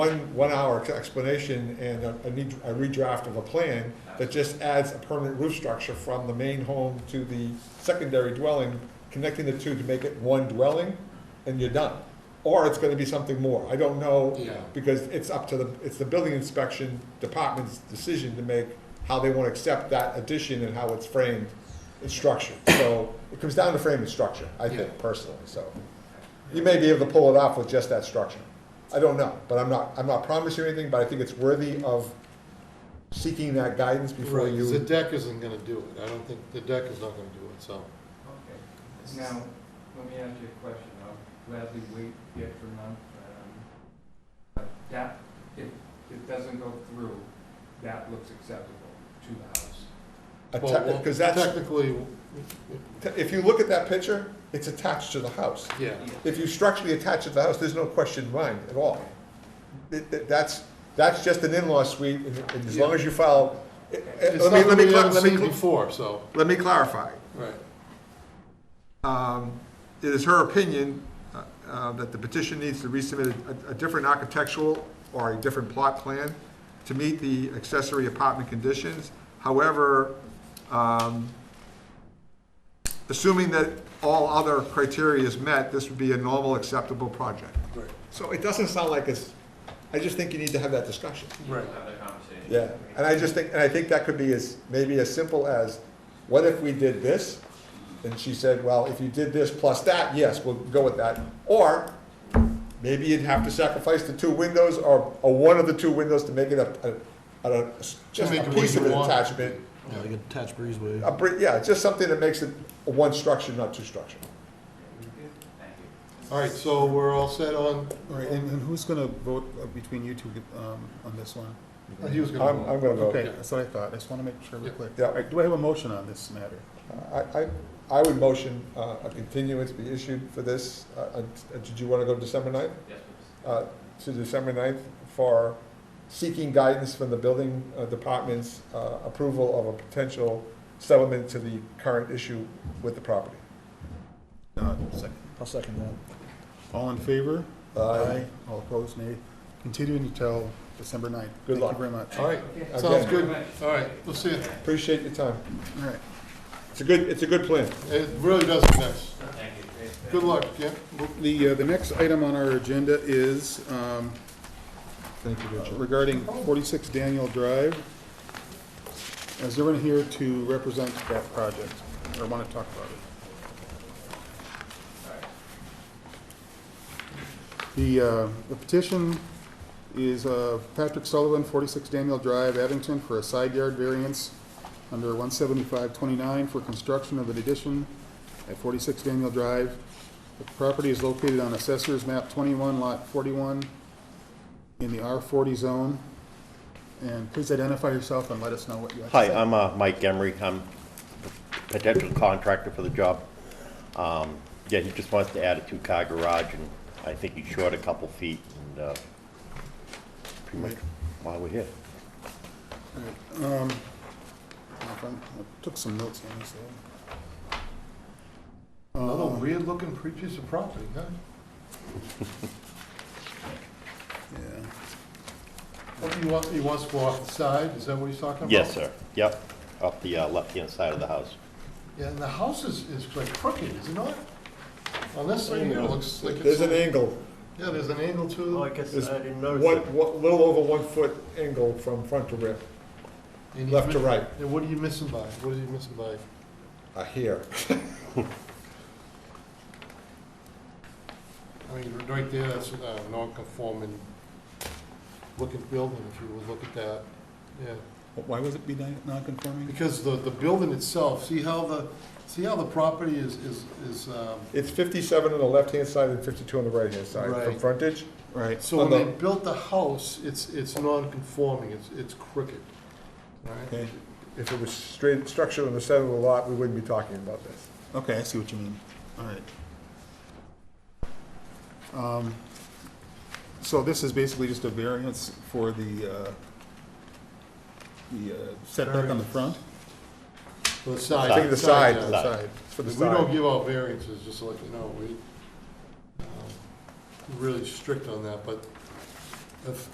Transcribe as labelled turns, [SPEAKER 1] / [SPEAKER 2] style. [SPEAKER 1] one, one hour explanation and a, a need- a redraft of a plan that just adds a permanent roof structure from the main home to the secondary dwelling, connecting the two to make it one dwelling, and you're done. Or it's gonna be something more, I don't know,
[SPEAKER 2] Yeah.
[SPEAKER 1] because it's up to the, it's the building inspection department's decision to make how they wanna accept that addition and how it's framed and structured. So, it comes down to frame and structure, I think,
[SPEAKER 2] Yeah.
[SPEAKER 1] personally, so. You may be able to pull it off with just that structure. I don't know, but I'm not, I'm not promising anything, but I think it's worthy of seeking that guidance before
[SPEAKER 2] Right, 'cause the
[SPEAKER 1] you.
[SPEAKER 2] deck isn't gonna do it, I don't think, the deck is not gonna do it, so.
[SPEAKER 3] Okay, now, let me ask you a question, I'll gladly wait the extra month. um, But that, if it doesn't go through, that looks acceptable to the house.
[SPEAKER 2] Well, well,
[SPEAKER 1] Because that's,
[SPEAKER 2] Technically,
[SPEAKER 1] if you look at that picture, it's attached to the house.
[SPEAKER 2] yeah,
[SPEAKER 1] If you structurally attach it to the house, there's no question in mind at all. It- it- That's, that's just an in-law suite, and and as long as you file. eh, eh,
[SPEAKER 2] it's
[SPEAKER 1] Let me,
[SPEAKER 2] something
[SPEAKER 1] let me,
[SPEAKER 2] we
[SPEAKER 1] cla-
[SPEAKER 2] haven't
[SPEAKER 1] let me,
[SPEAKER 2] seen
[SPEAKER 1] cla-
[SPEAKER 2] before, so,
[SPEAKER 1] let me clarify.
[SPEAKER 2] right.
[SPEAKER 1] Um, It is her opinion uh, uh, that the petition needs to resubmit a- a different architectural or a different plot plan to meet the accessory apartment conditions. However, um, assuming that all other criteria is met, this would be a normal acceptable project.
[SPEAKER 2] Right.
[SPEAKER 1] So it doesn't sound like it's, I just think you need to have that discussion.
[SPEAKER 2] Right.
[SPEAKER 4] have that conversation.
[SPEAKER 1] Yeah, and I just think, and I think that could be as, maybe as simple as, what if we did this? And she said, well, if you did this plus that, yes, we'll go with that. Or maybe you'd have to sacrifice the two windows or, or one of the two windows to make it a, a, a- just
[SPEAKER 2] make
[SPEAKER 1] a
[SPEAKER 2] it what
[SPEAKER 1] piece
[SPEAKER 2] you
[SPEAKER 1] of an
[SPEAKER 2] want.
[SPEAKER 1] attachment.
[SPEAKER 5] Yeah, like a attached breezeway.
[SPEAKER 1] A, bri- yeah, just something that makes it one structure, not two structure.
[SPEAKER 4] Thank you.
[SPEAKER 2] All right, so we're all set on,
[SPEAKER 6] All right, and, and who's gonna vote uh, between you two, um, on this one?
[SPEAKER 2] uh, he was
[SPEAKER 1] I'm,
[SPEAKER 2] gonna.
[SPEAKER 1] I'm
[SPEAKER 2] vote.
[SPEAKER 1] gonna vote.
[SPEAKER 6] Okay, that's what I thought, I just wanna make sure we're
[SPEAKER 2] Yeah.
[SPEAKER 6] clear.
[SPEAKER 1] Yeah.
[SPEAKER 6] All right, do I have a motion on this matter?
[SPEAKER 1] I, I, I would motion uh, a continuance be issued for this. Uh, uh, Did you wanna go December ninth?
[SPEAKER 4] Yes, please.
[SPEAKER 1] uh, to December 9th for seeking guidance from the building uh, department's uh, approval of a potential settlement to the current issue with the property.
[SPEAKER 6] Uh, second.
[SPEAKER 5] I'll second that.
[SPEAKER 6] All in favor?
[SPEAKER 1] Aye.
[SPEAKER 6] All opposed, nay. Continuing until December ninth.
[SPEAKER 1] Good luck.
[SPEAKER 6] Thank you very much.
[SPEAKER 2] All right,
[SPEAKER 3] Okay.
[SPEAKER 2] sounds
[SPEAKER 1] Again.
[SPEAKER 2] good, all right, we'll see it,
[SPEAKER 1] Appreciate your time.
[SPEAKER 6] All right.
[SPEAKER 1] It's a good, it's a good plan.
[SPEAKER 2] it really does a mess.
[SPEAKER 4] Thank you.
[SPEAKER 2] Good luck, yeah?
[SPEAKER 6] The, uh, the next item on our agenda is, um,
[SPEAKER 1] Thank you,
[SPEAKER 6] uh,
[SPEAKER 1] Richard.
[SPEAKER 6] regarding forty-six Daniel Drive. Is everyone here to represent that project, or wanna talk about it? The, uh, the petition is, uh, Patrick Sullivan, forty-six Daniel Drive, Abington, for a side yard variance under one seventy-five twenty-nine for construction of an addition at forty-six Daniel Drive. The property is located on Assessor's Map twenty-one, Lot forty-one, in the R forty zone. And please identify yourself and let us know what you have to
[SPEAKER 7] Hi,
[SPEAKER 6] say.
[SPEAKER 7] I'm uh, Mike Emery. I'm potential contractor for the job. Um, Yeah, he just wants to add a two-car garage, and I think he's short a couple feet, and uh, pretty much why we're here.
[SPEAKER 6] I Took some notes on this. though.
[SPEAKER 2] Another weird-looking pre- piece of property, huh?
[SPEAKER 6] Um, Yeah.
[SPEAKER 2] What do you want, Oh, he wants to go off the side, is that what he's talking about?
[SPEAKER 7] Yes, sir. Yep, up the uh, left-hand side of the house.
[SPEAKER 2] Yeah, and the house is, is like crooked, is it not? On this thing, it looks like it's.
[SPEAKER 1] There's an angle,
[SPEAKER 2] Yeah, there's an angle to it,
[SPEAKER 5] guess
[SPEAKER 1] Is- I
[SPEAKER 5] didn't
[SPEAKER 1] one, one- little over one foot angle from front to rear,
[SPEAKER 2] and he's
[SPEAKER 1] left to
[SPEAKER 2] mi-
[SPEAKER 1] right,
[SPEAKER 2] And what are you missing by? What are you missing by?
[SPEAKER 1] uh, here.
[SPEAKER 2] I mean, right there, that's a non-conforming looking building, if you would look at that, yeah.
[SPEAKER 6] Why was it be non- non-conforming?
[SPEAKER 2] Because the, the building itself, see how the, see how the property is, is, is, um,
[SPEAKER 1] It's 57 on the left-hand side and 52 on the right-hand side from
[SPEAKER 2] Right.
[SPEAKER 1] frontage.
[SPEAKER 6] Right.
[SPEAKER 2] so when
[SPEAKER 1] On the-
[SPEAKER 2] they built the house, it's, it's non-conforming, it's, it's crooked, right?
[SPEAKER 6] Okay,
[SPEAKER 1] If it was straight, structured on the center of the lot, we wouldn't be talking about this.
[SPEAKER 6] okay, I see what you mean. All right. Um, So this is basically just a variance for the, uh, the uh, setback on the front?
[SPEAKER 2] The side.
[SPEAKER 1] I think the side,
[SPEAKER 2] yeah.
[SPEAKER 7] Side.
[SPEAKER 1] it's for
[SPEAKER 2] We
[SPEAKER 1] the side.
[SPEAKER 2] don't give out variances, just to let you know, we, um, we're really strict on that, but if